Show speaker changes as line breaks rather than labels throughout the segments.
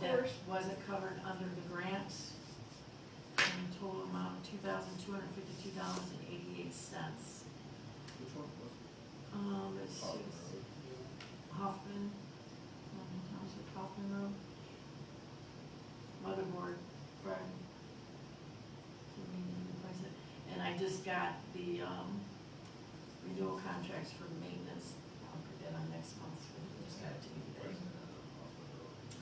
that wasn't covered under the grants. In total amount of two thousand two hundred fifty-two dollars and eighty-eight cents.
Which one was it?
Um, it's
Oh,
it's Hoffman, um, Township Hoffman Road. Motherboard, Fred. So we need to replace it. And I just got the, um, renewal contracts for maintenance. I'll put that on next month's, we just got to do that. I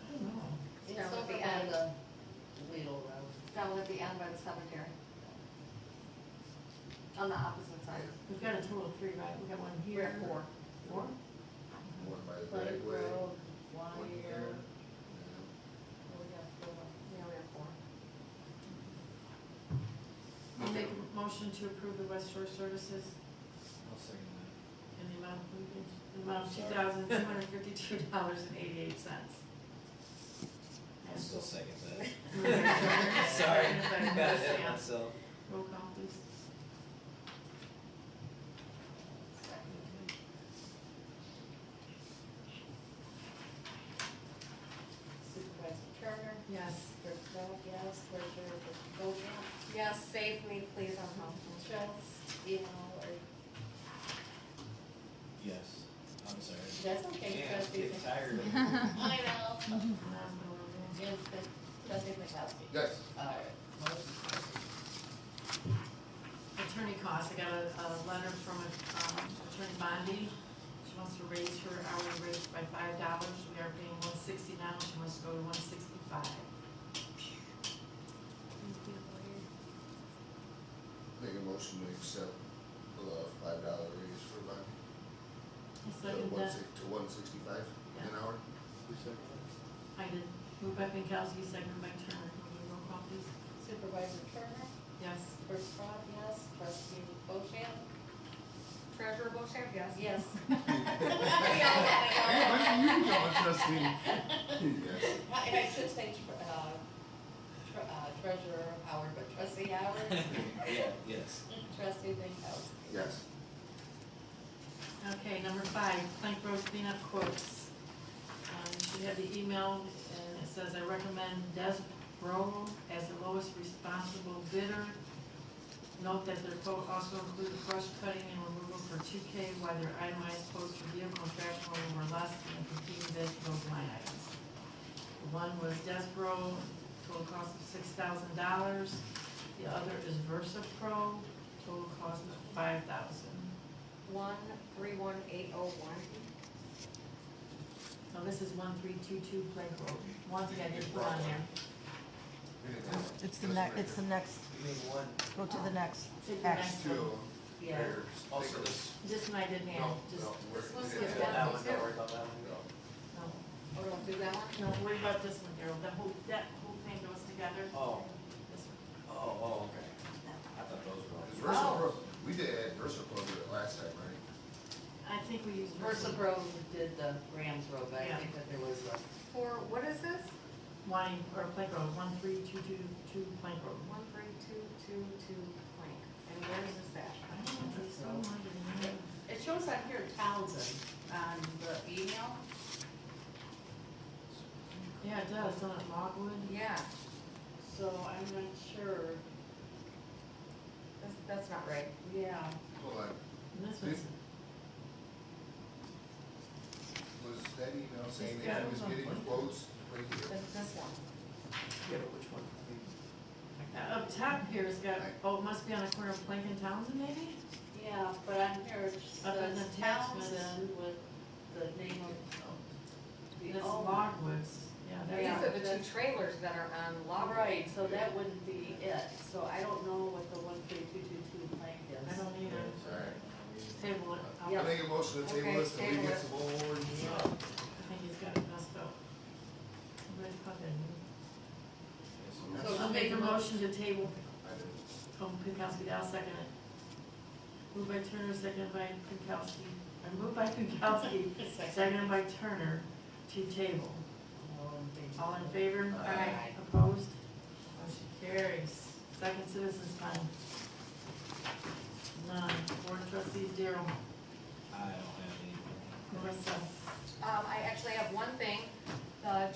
don't know.
It's
Down at
over
the
by
end.
the uh, Weedle Road.
down at the end by the cemetery. On the opposite side.
We've got a total of three, right? We got one
We're
here.
at four.
Four?
One by the
Clay
dragway.
Road,
one
one
there,
here,
and
we got four.
Yeah, we have four.
I'll make a motion to approve the West Shore Services
I'll second
in the amount of, the amount of two thousand two hundred fifty-two dollars and eighty-eight cents.
that. I'll still second that.
Oh,
Sorry, gotta
Roll
hit myself.
call, please.
Supervisor Turner,
Yes.
Clerk Wright, yes, Treasurer Bojek,
Yes, save me, please, I'm home.
Trust, you know, or,
Yes, I'm sorry.
that's okay,
Yeah, I'm
trustee.
getting tired.
I know.
And I'm gonna roll.
Jim, trustee Pankowski.
Yes.
All right, motion passes.
Attorney costs, I got a, a letter from, um, Attorney Bondi. She wants to raise her hourly rate by five dollars. We are paying one sixty now, she wants to go to one sixty-five.
Make a motion to accept the five dollar raise for Bob.
Second
To one
that,
six, to one sixty-five an
Yeah.
hour?
I did, moved by Pinkowski, seconded by Turner, can we roll call please?
Supervisor Turner,
Yes.
Clerk Wright, yes, trustee Bojek,
Treasurer Bochamp, yes.
yes.
Yes.
I, I should say, tr- uh, tr- uh, treasurer Howard, but trustee Howard,
Yeah, yes.
trustee Pankowski.
Yes.
Okay, number five, Plank Road cleanup quotes. Um, she had the email, and it says, I recommend Des Bro as the lowest responsible bidder. Note that their quote also included brush cutting and removal for two K, while their itemized quotes for vehicle and trash mowing were less than the competing bid for those line items. The One was Des Bro, total cost of six thousand dollars. The other is Versa Pro, total cost of five thousand.
One, three, one, eight, oh, one.
No, this is one three two two Plank Road, one thing I did put on there.
It's the next, it's the next,
You mean one,
go to the next
Take the
action.
next one.
Two.
Yeah.
pairs.
also this,
This one I didn't add,
No, no,
just,
we're-
This one's
yeah,
good.
yeah,
that one, don't worry about that one.
no.
no,
Oh, don't do that one?
no, worry about this one, Daryl, the whole, that whole thing goes together.
Oh,
This one.
oh, oh, okay. I thought those were all.
Is Versapro, we did add Versapro to it last time,
I
right?
think we used.
Versa Road did the Rams Road, but I
Yeah.
think that there was a,
For, what is this?
One, or Plank Road, one three two two two Plank Road.
One, three, two, two, two, blank. And where is this at?
I don't know, it's so long, I didn't know.
it shows on here Townsend on the email.
Yeah, it does, doesn't it, Logwood?
Yeah,
So I'm not sure,
that's, that's not right.
yeah,
Hold on,
And this one's,
was that email saying
Just
that
got
he was
one.
getting quotes? Right here.
This, this one.
Yeah, but which one?
uh, up top here has got,
Right.
oh, it must be on the corner of Plank and Townsend maybe?
yeah, but on here it
Up in the
says
attachments.
Townsend with the name of the.
That's
owner.
Logwoods, yeah,
These
that's,
Yeah.
are the two trailers that are on
All
Lava.
right, so that wouldn't be it, so I don't know what the one three two two two blank
I
is.
don't either,
Alright.
table it, I'll-
Yeah.
I make a motion to
Okay,
table this till we
table it.
get some more.
Yeah.
I think he's got it messed up. I'm gonna cut that.
So
I'll make a motion to table,
I didn't-
oh, Pinkowski, I'll second it. Moved by Turner, seconded by Pinkowski, or moved by Pinkowski, seconded by Turner to table. All in favor?
Aye.
Opposed? Motion carries. Second citizens fund. None. Board of trustees, Daryl,
I don't have any.
Marissa.
Um, I actually have one thing. The